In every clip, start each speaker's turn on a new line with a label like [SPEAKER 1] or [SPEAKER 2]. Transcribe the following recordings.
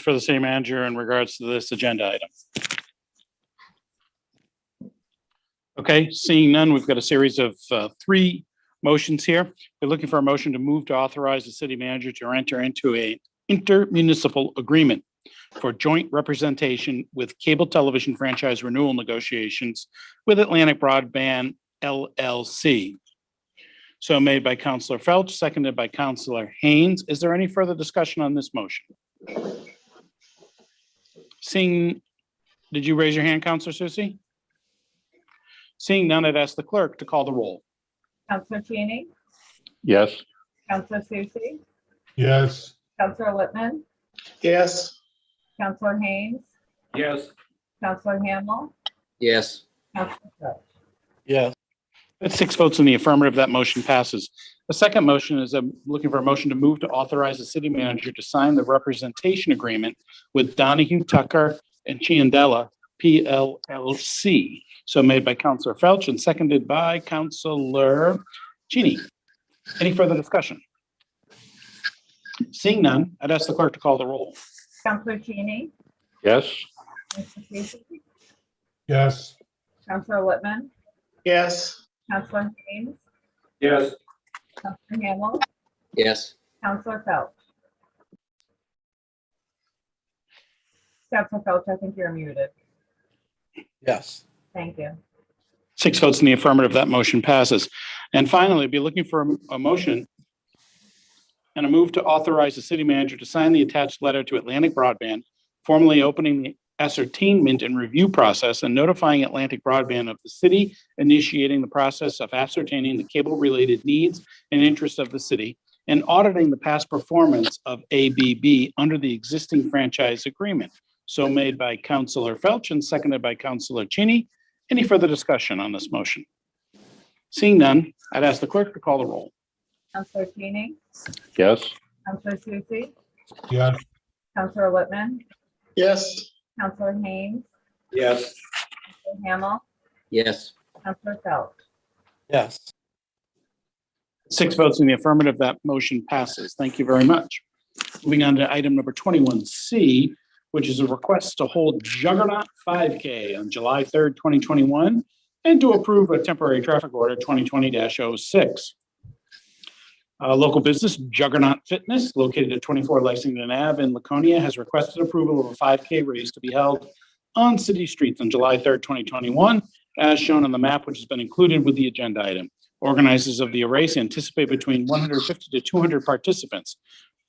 [SPEAKER 1] for the city manager in regards to this agenda item? Okay, seeing none, we've got a series of uh, three motions here. We're looking for a motion to move to authorize the city manager to enter into a intermunicipal agreement for joint representation with cable television franchise renewal negotiations with Atlantic Broadband LLC. So made by Counselor Felch, seconded by Counselor Haynes. Is there any further discussion on this motion? Seeing, did you raise your hand, Counselor Susie? Seeing none, I'd ask the clerk to call the roll.
[SPEAKER 2] Counselor Cheney,
[SPEAKER 3] Yes.
[SPEAKER 2] Counselor Susie,
[SPEAKER 3] Yes.
[SPEAKER 2] Counselor Whitman,
[SPEAKER 4] Yes.
[SPEAKER 2] Counselor Haynes,
[SPEAKER 3] Yes.
[SPEAKER 2] Counselor Hamel,
[SPEAKER 5] yes,
[SPEAKER 2] Counselor Cook.
[SPEAKER 1] Yes. With six votes in the affirmative, that motion passes. The second motion is I'm looking for a motion to move to authorize the city manager to sign the representation agreement with Donahue Tucker and Chiandella PLLC. So made by Counselor Felch and seconded by Counselor Cheney. Any further discussion? Seeing none, I'd ask the clerk to call the roll.
[SPEAKER 2] Counselor Cheney,
[SPEAKER 3] Yes.
[SPEAKER 2] Counselor Susie,
[SPEAKER 3] Yes.
[SPEAKER 2] Counselor Whitman,
[SPEAKER 4] Yes.
[SPEAKER 2] Counselor Haynes,
[SPEAKER 3] Yes.
[SPEAKER 2] Counselor Hamel,
[SPEAKER 5] yes,
[SPEAKER 2] Counselor Felch. Counselor Felch, I think you're muted.
[SPEAKER 6] yes,
[SPEAKER 2] Thank you.
[SPEAKER 1] Six votes in the affirmative, that motion passes. And finally, be looking for a- a motion and a move to authorize the city manager to sign the attached letter to Atlantic Broadband, formally opening the ascertainment and review process and notifying Atlantic Broadband of the city initiating the process of ascertaining the cable-related needs and interests of the city and auditing the past performance of ABB under the existing franchise agreement. So made by Counselor Felch and seconded by Counselor Cheney. Any further discussion on this motion? Seeing none, I'd ask the clerk to call the roll.
[SPEAKER 2] Counselor Cheney,
[SPEAKER 3] Yes.
[SPEAKER 2] Counselor Susie,
[SPEAKER 3] Yes.
[SPEAKER 2] Counselor Whitman,
[SPEAKER 4] Yes.
[SPEAKER 2] Counselor Haynes,
[SPEAKER 3] Yes.
[SPEAKER 2] Counselor Hamel,
[SPEAKER 5] yes.
[SPEAKER 2] Counselor Felch.
[SPEAKER 6] yes.
[SPEAKER 1] Six votes in the affirmative, that motion passes. Thank you very much. Moving on to item number twenty-one C, which is a request to hold Juggernaut five K on July third, twenty twenty-one, and to approve a temporary traffic order twenty twenty 6 Uh, local business Juggernaut Fitness, located at twenty-four Lexington Ave in Laconia, has requested approval of a five K race to be held on city streets on July third, twenty twenty-one, as shown on the map, which has been included with the agenda item. Organizers of the race anticipate between 150 to 200 participants.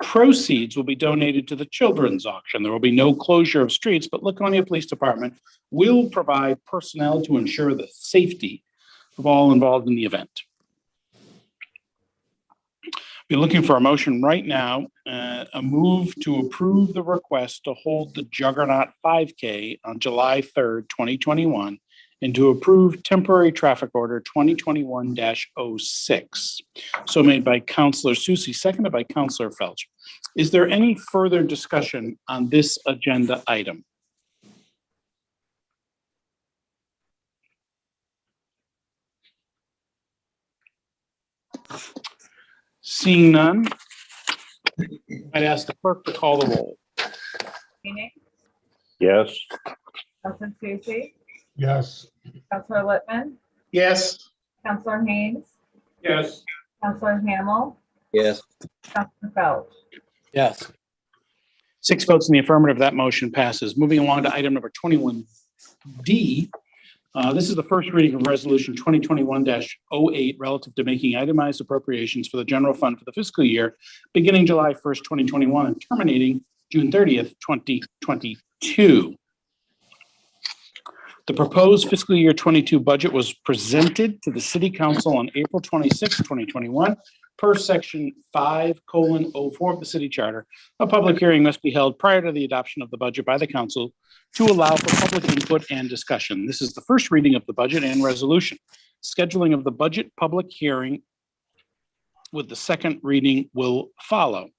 [SPEAKER 1] Proceeds will be donated to the children's auction. There will be no closure of streets, but Laconia Police Department will provide personnel to ensure the safety of all involved in the event. Be looking for a motion right now, uh, a move to approve the request to hold the Juggernaut 5K on July 3rd, 2021, and to approve temporary traffic order 2021-06. So made by Counselor Susie, seconded by Counselor Felch. Is there any further discussion on this agenda item? Seeing none, I'd ask the clerk to call the roll.
[SPEAKER 2] Cheney,
[SPEAKER 3] Yes.
[SPEAKER 2] Counselor Susie,
[SPEAKER 3] Yes.
[SPEAKER 2] Counselor Whitman,
[SPEAKER 4] Yes.
[SPEAKER 2] Counselor Haynes,
[SPEAKER 3] Yes.
[SPEAKER 2] Counselor Hamel,
[SPEAKER 5] Yes.
[SPEAKER 2] Counselor Felch.
[SPEAKER 6] Yes.
[SPEAKER 1] Six votes in the affirmative, that motion passes. Moving along to item number twenty-one D. Uh, This is the first reading of Resolution twenty twenty-one 8 relative to making itemized appropriations for the general fund for the fiscal year beginning July first, twenty twenty-one and terminating June thirtieth, twenty twenty-two. The proposed fiscal year twenty-two budget was presented to the city council on April twenty-sixth, twenty twenty-one per section five colon oh four of the city charter a public hearing must be held prior to the adoption of the budget by the council to allow for public input and discussion. This is the first reading of the budget and resolution. Scheduling of the budget public hearing with the second reading will follow.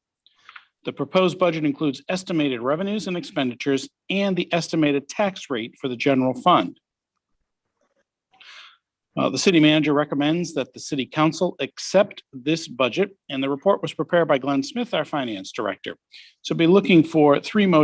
[SPEAKER 1] The proposed budget includes estimated revenues and expenditures and the estimated tax rate for the general fund. Uh, The city manager recommends that the city council accept this budget, and the report was prepared by Glenn Smith, our finance director. So be looking for three motions